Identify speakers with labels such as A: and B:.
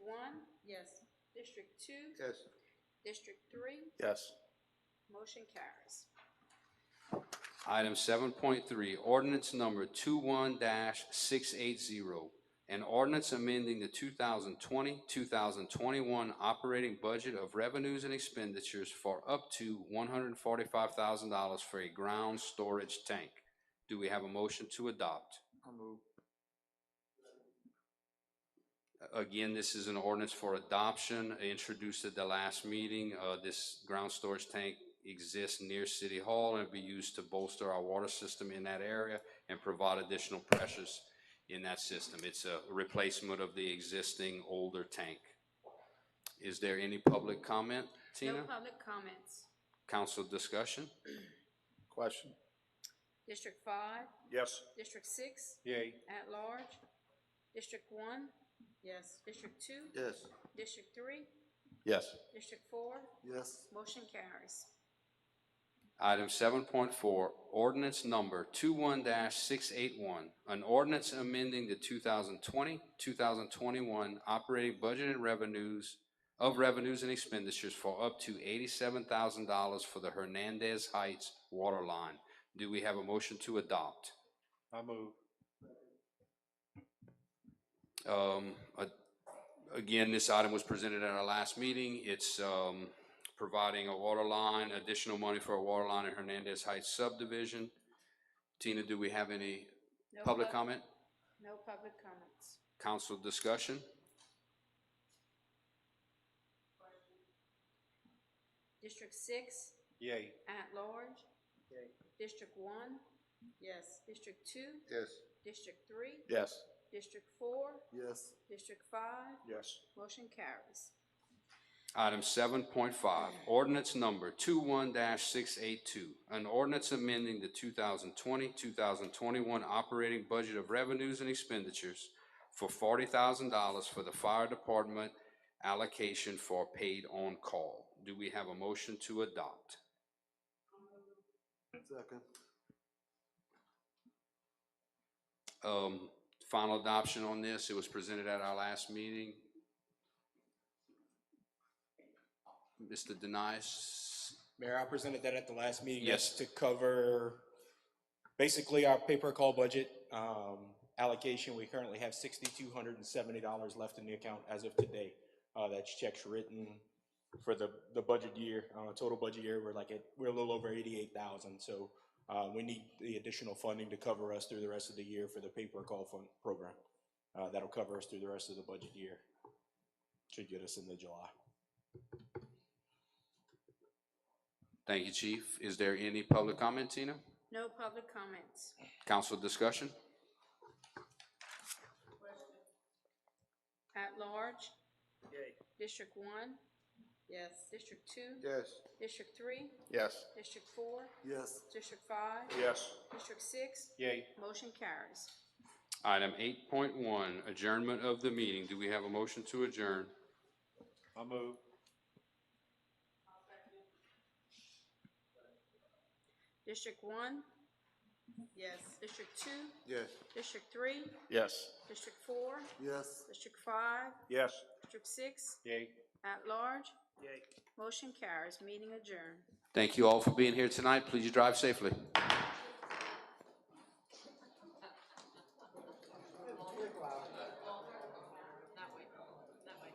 A: District two,
B: Yes.
A: District three,
C: Yes.
A: motion carries.
D: Item seven point three, ordinance number 21 six eight zero. An ordinance amending the 2020-2021 operating budget of revenues and expenditures for up to one hundred and forty-five thousand dollars for a ground storage tank. Do we have a motion to adopt?
B: I'll move.
D: Again, this is an ordinance for adoption, introduced at the last meeting. Uh, this ground storage tank exists near City Hall and be used to bolster our water system in that area and provide additional pressures in that system. It's a replacement of the existing older tank. Is there any public comment,
A: No
D: Tina?
A: public comments.
D: Council discussion?
C: Question?
A: District five,
C: Yes.
A: District six,
C: Yay.
A: at large. District one,
E: yes,
A: District two,
B: Yes.
A: District three,
C: Yes.
A: District four,
B: Yes.
A: motion carries.
D: Item seven point four, ordinance number 21 six eight one, an ordinance amending the 2020-2021 operating budget and revenues of revenues and expenditures for up to eighty-seven thousand dollars for the Hernandez Heights water line. Do we have a motion to adopt?
C: I move.
D: Um, a- again, this item was presented at our last meeting. It's, um, providing a water line, additional money for a water line in Hernandez Heights subdivision. Tina, do we have any
A: No
D: public
A: pub-
D: comment,
A: No public comments.
D: council discussion?
A: District six,
C: Yay.
A: at large. District one,
E: yes,
A: District two,
B: Yes.
A: District three,
C: Yes.
A: District four,
B: Yes.
A: District five,
C: Yes.
A: motion carries.
D: Item seven point five, ordinance number 21 six eight two. An ordinance amending the 2020-2021 operating budget of revenues and expenditures for forty thousand dollars for the fire department allocation for paid on call. Do we have a motion to adopt?
B: Second.
D: Um, final adoption on this, it was presented at our last meeting. Mr. Denies,
F: Mayor, I presented that at the last meeting.
D: Yes.
F: That's To cover basically our pay-per-call budget um, allocation, we currently have sixty-two hundred and seventy dollars left in the account as of today. Uh, That's checks written for the, the budget year, uh, total budget year, we're like, at we're a little over eighty-eight thousand. So uh, we need the additional funding to cover us through the rest of the year for the pay-per-call fund program. Uh, That'll cover us through the rest of the budget year. Should get us into July.
D: Thank you, Chief. Is there any public comment, Tina?
A: No public comments.
D: Council discussion?
A: At large. District one,
E: yes,
A: District two,
B: Yes.
A: District three,
C: Yes.
A: District four,
B: Yes.
A: District five,
C: Yes.
A: District six,
C: Yay.
A: motion carries.
D: Item eight point one, adjournment of the meeting. Do we have a motion to adjourn?
C: I move.
A: District one,
E: yes.
A: District two,
B: Yes.
A: District three,
C: Yes.
A: District four,
B: Yes.
A: District five,
C: Yes.
A: District six,
C: Yay.
A: at large. Motion carries, meeting adjourned.
D: Thank you all for being here tonight. Please drive safely.